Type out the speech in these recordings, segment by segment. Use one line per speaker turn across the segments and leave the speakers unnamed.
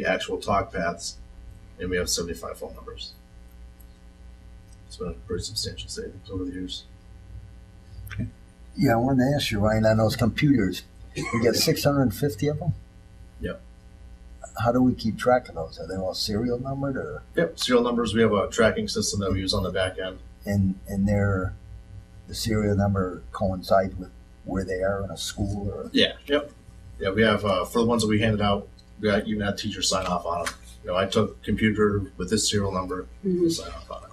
the actual talk paths, and we have seventy-five phone numbers. It's been a pretty substantial savings over the years.
Yeah, I wanted to ask you, Ryan, on those computers, you got six hundred and fifty of them?
Yep.
How do we keep track of those? Are they all serial numbered or,
Yep, serial numbers, we have a tracking system that we use on the back end.
and, and they're, the serial number coincides with where they are in a school or?
Yeah, yep. Yeah, we have, uh, for the ones that we handed out, we got, even had teachers sign off on them. You know, I took computer with this serial number,
Mhm.
sign off on it.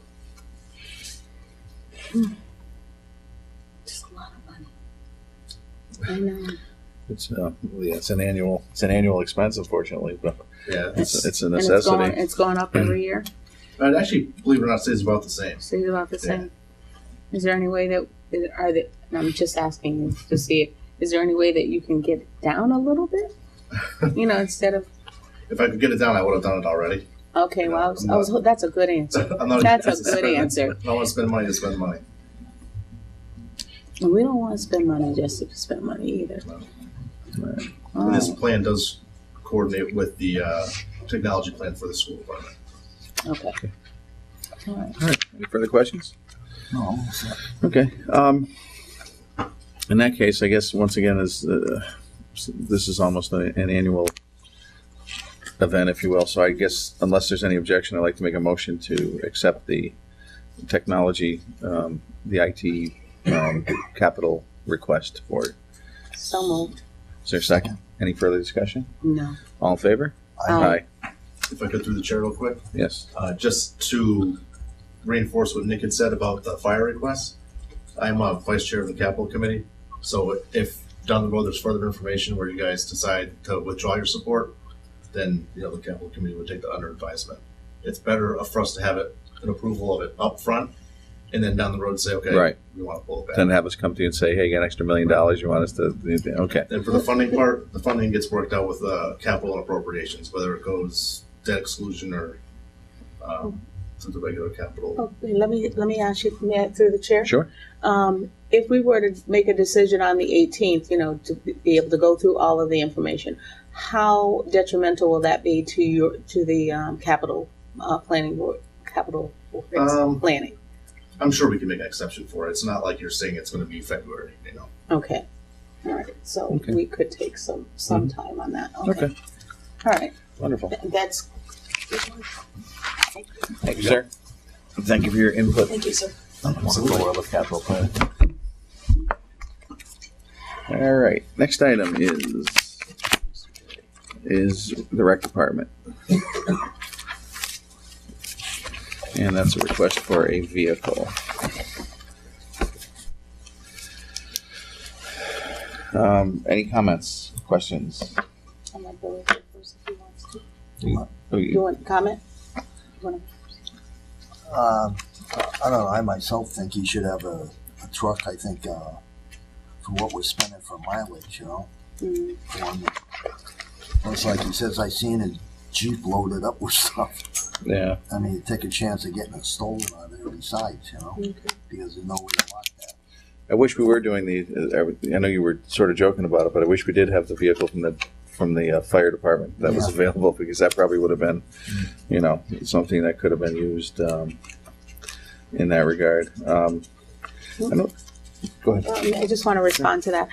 Just a lot of money. I know.
It's uh, yeah, it's an annual it's an annual expense, unfortunately, but
Yeah,
it's it's a
And it's going,
necessity.
it's going up every year,
and actually, believe it or not, stays about the same.
so it's about the same. Is there any way that, that- are the, and I'm just asking you to see, if- is there any way that you can get it down a little bit? You know, instead of,
If I could get it down, I would have done it already.
okay, well, I was, I was, that's a good answer.
I'm not
That's a
against
good
spending.
answer.
I don't want to spend money to spend money.
And we don't wanna spend money just to spend money either.
And this
Oh,
plan does coordinate with the uh, technology plan for the school department.
okay. All right.
Any further questions?
No.
Okay. Um, in that case, I guess once again is uh, this is almost a, an annual event, if you will. So I guess unless there's any objection, I'd like to make a motion to accept the technology, um, the IT um, capital request for. it.
So moved,
Is there a second? Any further discussion?
no. Um,
All in favor?
Aye.
If I could through the chair real quick,
Yes.
uh, just to reinforce what Nick had said about the fire request, I'm a vice chair of the capital committee. So if down the road there's further information where you guys decide to withdraw your support, then you know the capital committee would take that under advisement. It's better for us to have it an approval of it up front, and then down the road say, okay,
Right.
we want to pull it back.
Then have us come to you and say, hey, you got an extra million dollars you want us to, okay.
And for the funding part, the funding gets worked out with uh, capital and appropriations, whether it goes debt exclusion or um, to the regular capital.
Okay, oh, let me, let me ask you, may I, through the chair?
Sure.
Um, if we were to make a decision on the eighteenth, you know, to be able to go through all of the information, how detrimental will that be to your, to the, um, capital, uh, planning board, capital board's
Um,
planning?
I'm sure we can make an exception for it. It's not like you're saying it's going to be February, you know.
Okay, all right, so
Okay. Mm-hmm.
we could take some, some time on that, okay,
Okay,
all right,
wonderful.
Th- that's.
Thank you, sir. Thank you for your input.
Thank you, sir.
All right, next item is, is the rec department. And that's a request for a vehicle. Um, any comments, questions?
I'm gonna go with it first if he wants to.
Oh,
You
you-
want to comment? You wanna-
Um, I don't know, I myself think you should have a, a truck, I think, uh, for what we're spending for mileage, you know?
Mm,
for one that- It's like he says, I seen his Jeep loaded up with stuff.
Yeah,
I mean, you take a chance of getting it stolen on every side, you know,
okay.
because there's no way to lock that.
I wish we were doing the, I- I know you were sort of joking about it, but I wish we did have the vehicle from the, from the uh, fire department that was
Yeah.
available, because that probably would have been, you know, something that could have been used um, in that regard. Um, I don't, go ahead.
Um, I just want to respond to that.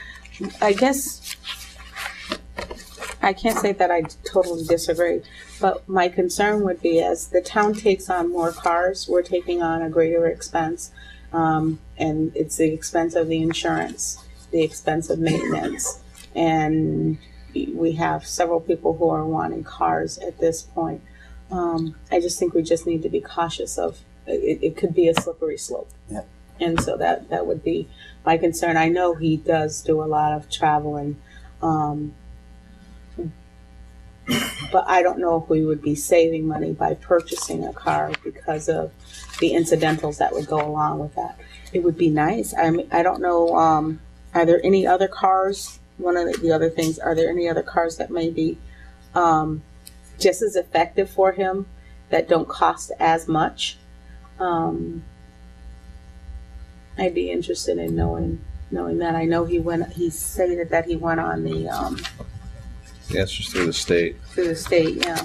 I guess, I can't say that I totally disagree, but my concern would be as the town takes on more cars, we're taking on a greater expense. Um, and it's the expense of the insurance, the expense of maintenance. And we have several people who are wanting cars at this point. Um, I just think we just need to be cautious of, it, it could be a slippery slope.
Yeah.
And so that, that would be my concern. I know he does do a lot of traveling, um, but I don't know if we would be saving money by purchasing a car because of the incidentals that would go along with that. It would be nice. I mean, I don't know. Um, are there any other cars? One of the- the other things, are there any other cars that may be um, just as effective for him that don't cost as much? Um, I'd be interested in knowing knowing that. I know he went. He stated that he went on the um,
Yeah, it's just through the state.
through the state. Yeah.